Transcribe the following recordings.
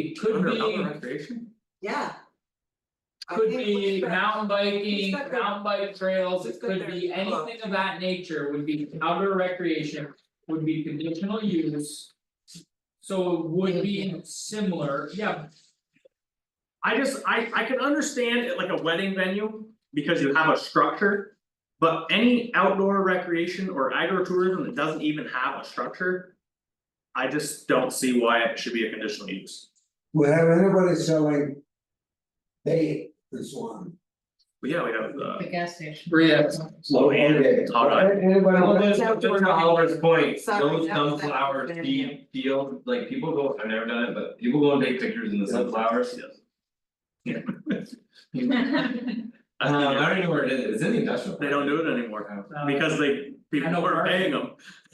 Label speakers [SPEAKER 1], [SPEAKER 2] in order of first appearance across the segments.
[SPEAKER 1] It could
[SPEAKER 2] Under
[SPEAKER 1] be,
[SPEAKER 2] other recreation?
[SPEAKER 3] yeah. I
[SPEAKER 1] could
[SPEAKER 3] think
[SPEAKER 1] be
[SPEAKER 3] we-
[SPEAKER 1] mountain biking,
[SPEAKER 3] It's not good.
[SPEAKER 1] mountain bike trails, it
[SPEAKER 3] It's
[SPEAKER 1] could
[SPEAKER 3] good there.
[SPEAKER 1] be anything of that nature would be outdoor recreation, would be conditional use. So it would be similar, yeah,
[SPEAKER 2] I just, I I can understand it like a wedding venue, because you have a structure. But any outdoor recreation or agritourism that doesn't even have a structure. I just don't see why it should be a conditional use,
[SPEAKER 4] Well, anybody selling. Bait this one.
[SPEAKER 2] but yeah, we have uh, the.
[SPEAKER 5] gas station.
[SPEAKER 1] yeah,
[SPEAKER 6] Well, and
[SPEAKER 2] Hot dog.
[SPEAKER 4] Anybody.
[SPEAKER 6] Well, that's
[SPEAKER 3] It's
[SPEAKER 6] that's
[SPEAKER 3] outdoor
[SPEAKER 6] to Oliver's point,
[SPEAKER 3] Sorry,
[SPEAKER 6] those
[SPEAKER 3] that was- that was
[SPEAKER 6] sunflower
[SPEAKER 3] bad,
[SPEAKER 6] seed field, like people go, I've never done it, but people go and take pictures in the
[SPEAKER 4] Yeah.
[SPEAKER 6] sunflowers.
[SPEAKER 2] Yeah.
[SPEAKER 6] Um, I don't even know where it is, it's in the industrial.
[SPEAKER 2] They don't do it anymore, because they,
[SPEAKER 1] I know
[SPEAKER 2] people are
[SPEAKER 1] parking.
[SPEAKER 2] paying them,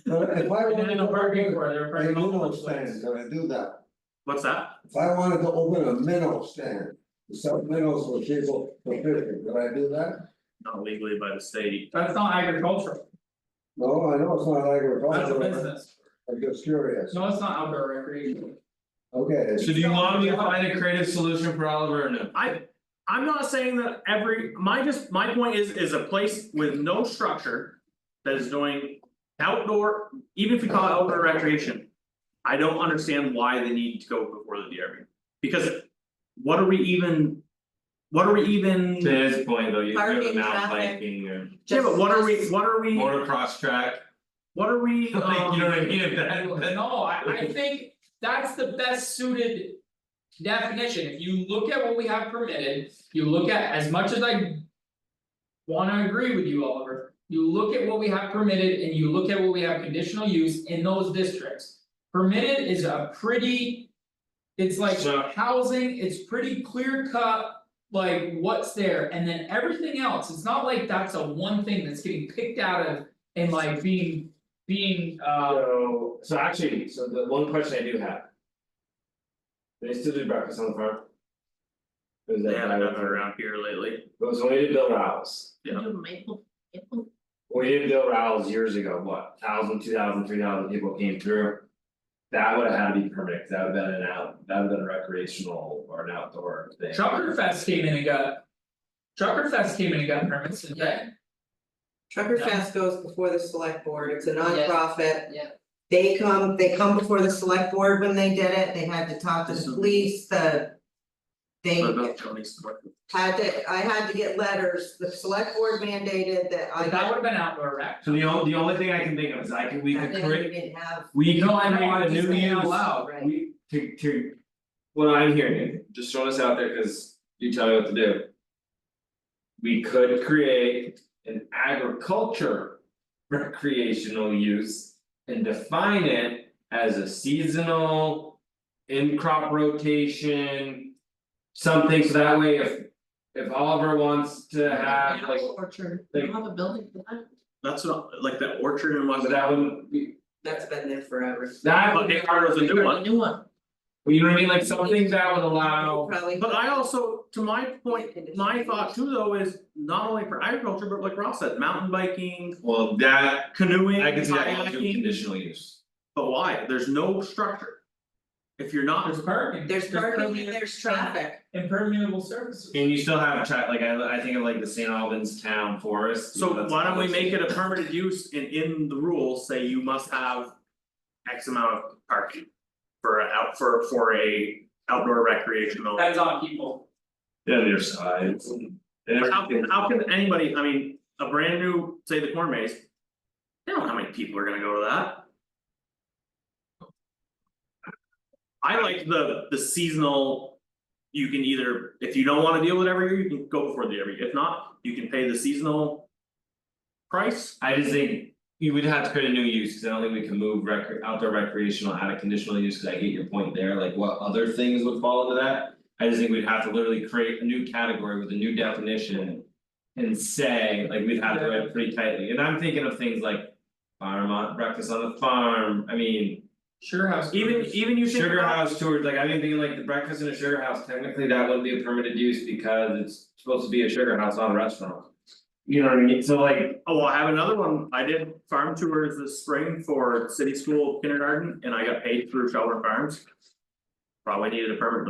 [SPEAKER 4] But if I
[SPEAKER 1] and
[SPEAKER 4] wanted
[SPEAKER 1] then
[SPEAKER 4] to
[SPEAKER 1] a parking
[SPEAKER 4] open
[SPEAKER 1] for, they're
[SPEAKER 4] a
[SPEAKER 1] parking all over
[SPEAKER 4] minnow
[SPEAKER 1] the place.
[SPEAKER 4] stand, can I do that?
[SPEAKER 2] what's that?
[SPEAKER 4] If I wanted to open a minnow stand, to sell minnows for people for fishing, could I do that?
[SPEAKER 2] Not legally by the state,
[SPEAKER 1] That's not agricultural,
[SPEAKER 4] No, I know it's not
[SPEAKER 1] that's a
[SPEAKER 4] agricultural,
[SPEAKER 1] business,
[SPEAKER 4] I'm just curious,
[SPEAKER 1] no, it's not outdoor recreation.
[SPEAKER 4] okay.
[SPEAKER 6] So do you want me to find a creative solution for Oliver or no?
[SPEAKER 2] I. I'm not saying that every, my just, my point is, is a place with no structure. That is doing outdoor, even if we call it outdoor recreation. I don't understand why they need to go before the DRB, because. What are we even? What are we even?
[SPEAKER 6] To his point though, you go to
[SPEAKER 3] Parking,
[SPEAKER 6] mountain
[SPEAKER 3] traffic.
[SPEAKER 6] biking or
[SPEAKER 2] Yeah, but what are we, what are we,
[SPEAKER 6] motocross track,
[SPEAKER 2] what are we,
[SPEAKER 6] like, you know what I
[SPEAKER 2] um,
[SPEAKER 6] mean, if that, that-
[SPEAKER 1] No, I I think that's the best suited. Definition, if you look at what we have permitted, you look at as much as I. Wanna agree with you, Oliver, you look at what we have permitted and you look at what we have conditional use in those districts. Permitted is a pretty. It's like
[SPEAKER 6] So-
[SPEAKER 1] housing, it's pretty clear cut, like what's there, and then everything else, it's not like that's a one thing that's getting picked out of. And like being, being uh
[SPEAKER 6] So, so actually, so the one question I do have. They still do breakfast on the farm? Is that
[SPEAKER 2] they haven't done
[SPEAKER 6] guy-
[SPEAKER 2] it around here lately,
[SPEAKER 6] It was when we did Bill Rouse.
[SPEAKER 2] Yeah.
[SPEAKER 5] Do maple, maple,
[SPEAKER 6] When we did Bill Rouse years ago, what, thousand, two thousand, three thousand people came through. That would have had to be permitted, 'cause that would have been an out, that would have been a recreational or an outdoor thing.
[SPEAKER 1] Trucker Fest came in and got. Trucker Fest came in and got permits and that,
[SPEAKER 3] Trucker
[SPEAKER 1] No.
[SPEAKER 3] Fest goes before the select board, it's a
[SPEAKER 5] Yeah.
[SPEAKER 3] nonprofit.
[SPEAKER 5] Yeah.
[SPEAKER 3] They come, they come before the select board when they did it, they had to talk to
[SPEAKER 2] This
[SPEAKER 3] the
[SPEAKER 2] is-
[SPEAKER 3] police, the. They
[SPEAKER 2] What about Tony's work?
[SPEAKER 3] had to, I had to get letters, the select board mandated that I.
[SPEAKER 1] but that would have been outdoor rec.
[SPEAKER 6] So the only, the only thing I can think of is I could, we
[SPEAKER 3] that
[SPEAKER 6] could
[SPEAKER 3] they
[SPEAKER 6] create,
[SPEAKER 3] didn't have.
[SPEAKER 6] we could
[SPEAKER 1] No, I know, I'm
[SPEAKER 6] create a
[SPEAKER 1] just
[SPEAKER 6] new
[SPEAKER 1] saying out
[SPEAKER 6] use.
[SPEAKER 1] loud,
[SPEAKER 3] right.
[SPEAKER 6] We to to. What I'm hearing, just throw this out there, cause you tell me what to do. We could create an agriculture recreational use and define it as a seasonal. In crop rotation. Something so that way if if Oliver wants to have like,
[SPEAKER 5] orchard,
[SPEAKER 6] like-
[SPEAKER 5] you have a building for that?
[SPEAKER 2] That's not, like that orchard and
[SPEAKER 6] but
[SPEAKER 2] whatnot,
[SPEAKER 6] that wouldn't be,
[SPEAKER 3] That's been there forever.
[SPEAKER 6] that
[SPEAKER 2] but
[SPEAKER 6] would be.
[SPEAKER 2] it was a new one.
[SPEAKER 5] New one.
[SPEAKER 6] You know what I mean, like something that would allow.
[SPEAKER 3] Probably.
[SPEAKER 2] But I also, to my point, my thought too though is not only for agriculture, but like Ross said, mountain biking,
[SPEAKER 6] Well, that
[SPEAKER 2] canoeing,
[SPEAKER 6] I can see that going through
[SPEAKER 2] kayaking,
[SPEAKER 6] conditional use.
[SPEAKER 2] but why? There's no structure. If you're not,
[SPEAKER 1] There's parking.
[SPEAKER 3] There's parking, and
[SPEAKER 1] permeable-
[SPEAKER 3] there's traffic,
[SPEAKER 1] Impermeable surfaces.
[SPEAKER 6] And you still have track, like I I think of like the St. Albans Town Forest. you know,
[SPEAKER 2] so
[SPEAKER 6] that's
[SPEAKER 2] why don't we
[SPEAKER 6] obviously-
[SPEAKER 2] make it a permitted use and in the rules say you must have. X amount of parking for a out for for a outdoor recreational.
[SPEAKER 1] Depends on people,
[SPEAKER 6] Yeah, their sides. and
[SPEAKER 2] How
[SPEAKER 6] everything.
[SPEAKER 2] can how can anybody, I mean, a brand new, say the corn maze. They don't know how many people are gonna go to that. I like the the seasonal. You can either, if you don't wanna deal with every year, you can go before the every, if not, you can pay the seasonal. Price,
[SPEAKER 6] I just think you would have to create a new use, cause I don't think we can move recre- outdoor recreational out of conditional use, cause I get your point there, like what other things would fall into that? I just think we'd have to literally create a new category with a new definition. And say, like, we'd have to write it pretty tightly, and I'm thinking of things like. Farm on, breakfast on the farm, I mean.
[SPEAKER 1] sure house.
[SPEAKER 2] even
[SPEAKER 1] groups.
[SPEAKER 2] even you think
[SPEAKER 6] Sugar
[SPEAKER 2] about-
[SPEAKER 6] house tours, like I've been thinking like the breakfast in a sugar house, technically that wouldn't be a permitted use because it's supposed to be a sugar house, not a restaurant. You know what I mean, so like,
[SPEAKER 2] Oh, I have another one, I did farm tours this spring for city school kindergarten and I got paid through Shelburne Farms. Probably needed a permit